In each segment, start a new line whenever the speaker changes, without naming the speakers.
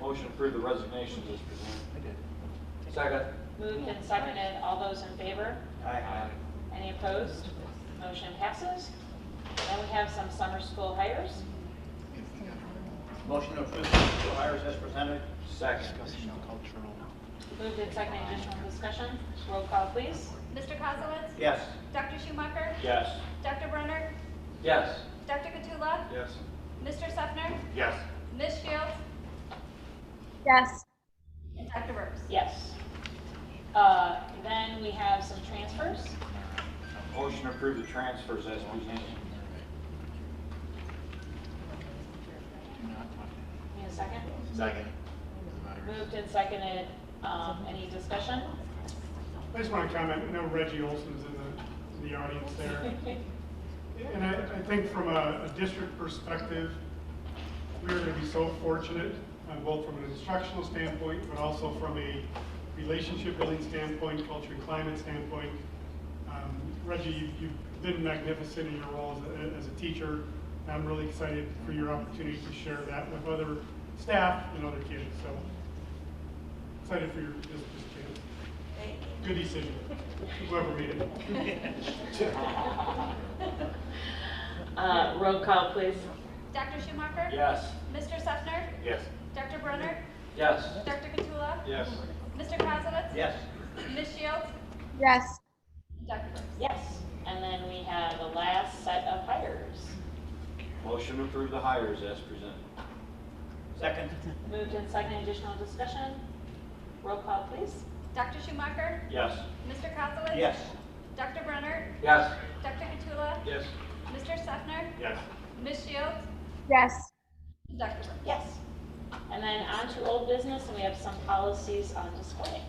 Motion to approve the resignations as presented.
I did.
Second.
Moved and seconded, all those in favor? Any opposed? Motion passes. Then we have some summer school hires.
Motion to approve the two hires as presented?
Second.
Discussing the cultural.
Moved and seconded, additional discussion, roll call please.
Mr. Kozowitz?
Yes.
Dr. Schumacher?
Yes.
Dr. Brenner?
Yes.
Dr. Katula?
Yes.
Mr. Sefner?
Yes.
Ms. Shields?
yes,
And Dr. Burks?
Yes. Uh, Then we have some transfers.
Motion to approve the transfers as presented.
Do not talk to
Need a second?
Second.
the matters.
Moved and seconded, um, any discussion?
I just want to comment, I know Reggie Olson's in the, in the audience there. And I, I think from a, a district perspective, we're going to be so fortunate, uh, both from an instructional standpoint, but also from a relationship building standpoint, culture and climate standpoint. Um, Reggie, you- you've been magnificent in your role as a, as a teacher. and I'm really excited for your opportunity to share that with other staff and other kids, so excited for your, this, this chance. Good decision, whoever made it.
Uh, Roll call please.
Dr. Schumacher?
Yes.
Mr. Sefner?
Yes.
Dr. Brenner?
Yes.
Dr. Katula?
Yes.
Mr. Kozowitz?
Yes.
Ms. Shields?
yes.
And Dr. Burks?
Yes. And then we have the last set of hires.
Motion to approve the hires as presented.
Second?
Moved and seconded, additional discussion, roll call please.
Dr. Schumacher?
Yes.
Mr. Kozowitz?
Yes.
Dr. Brenner?
Yes.
Dr. Katula?
Yes.
Mr. Sefner?
Yes.
Ms. Shields?
Yes.
And Dr. Burks?
Yes. And then on to old business, and we have some policies on display.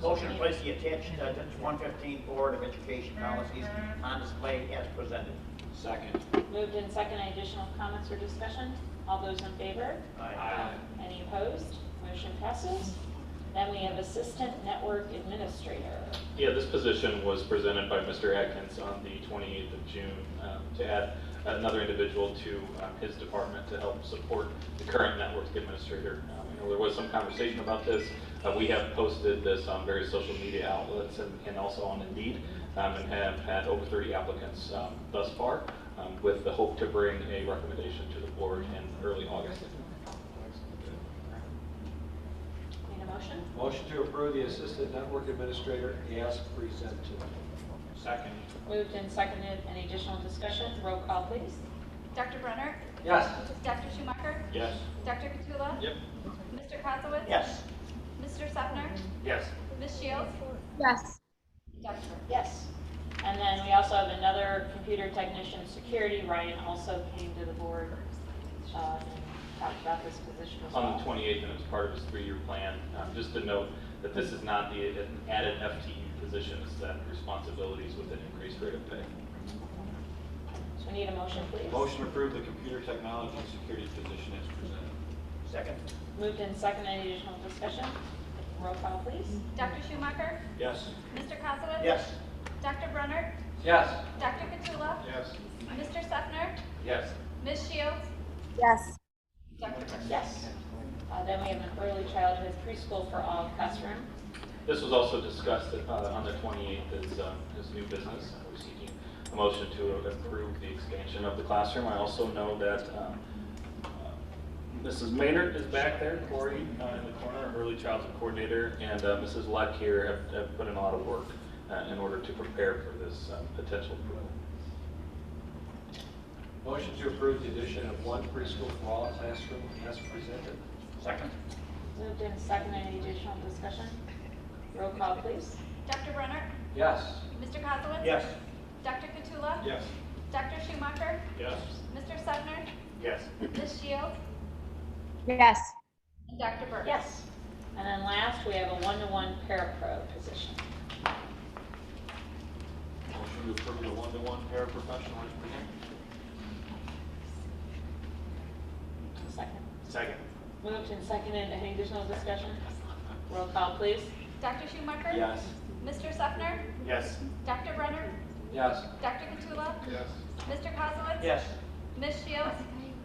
Motion to place the attached uh, District 115 Board of Education policies on display as presented.
Second.
Moved and seconded, additional comments or discussion? All those in favor? Any opposed? Motion passes. Then we have Assistant Network Administrator.
Yeah, this position was presented by Mr. Atkins on the 28th of June um, to add another individual to um, his department to help support the current network administrator. Um, I know there was some conversation about this. Uh, We have posted this on various social media outlets and and also on Indeed, um, and have had over 30 applicants um, thus far, um, with the hope to bring a recommendation to the board in early August.
Need a motion?
Motion to approve the Assistant Network Administrator as presented.
Second.
Moved and seconded, any additional discussion? Roll call, please.
Dr. Brenner?
Yes.
Dr. Schumacher?
Yes.
Dr. Katula?
Yep.
Mr. Kozowitz?
Yes.
Mr. Sefner?
Yes.
Ms. Shields?
Yes.
And Dr. Burks?
Yes. And then we also have another computer technician security. Ryan also came to the board uh, and talked about this position as well.
on the 28th, and it's part of his three-year plan. Um, Just to note that this is not the an added FTE position, it's that responsibilities with an increased rate of pay.
So we need a motion, please.
Motion to approve the computer technology and security position as presented.
Second?
Moved and seconded, any additional discussion? Roll call, please.
Dr. Schumacher?
Yes.
Mr. Kozowitz?
Yes.
Dr. Brenner?
Yes.
Dr. Katula?
Yes.
Mr. Sefner?
Yes.
Ms. Shields?
Yes.
Dr. Burks?
Yes. Uh, Then we have an early childhood preschool for all classroom.
This was also discussed uh, on the 28th as, um, as new business. We're seeking a motion to approve the expansion of the classroom. I also know that um, uh, Mrs. Maynard is back there, Corey uh, in the corner, our early childhood coordinator, and uh, Mrs. Luck here have- have put in a lot of work uh, in order to prepare for this um, potential approval.
Motion to approve the addition of one preschool for all classroom as presented.
Second?
Moved and seconded, any additional discussion? Roll call, please.
Dr. Brenner?
Yes.
Mr. Kozowitz?
Yes.
Dr. Katula?
Yes.
Dr. Schumacher?
Yes.
Mr. Sefner?
Yes.
Ms. Shields?
Yes.
And Dr. Burks?
Yes. And then last, we have a one-to-one parapro position.
Motion to approve the one-to-one paraprofessional as presented.
Second.
Second.
Moved and seconded, any additional discussion? Roll call, please.
Dr. Schumacher?
Yes.
Mr. Sefner?
Yes.
Dr. Brenner?
Yes.
Dr. Katula?
Yes.
Mr. Kozowitz?
Yes.
Ms. Shields?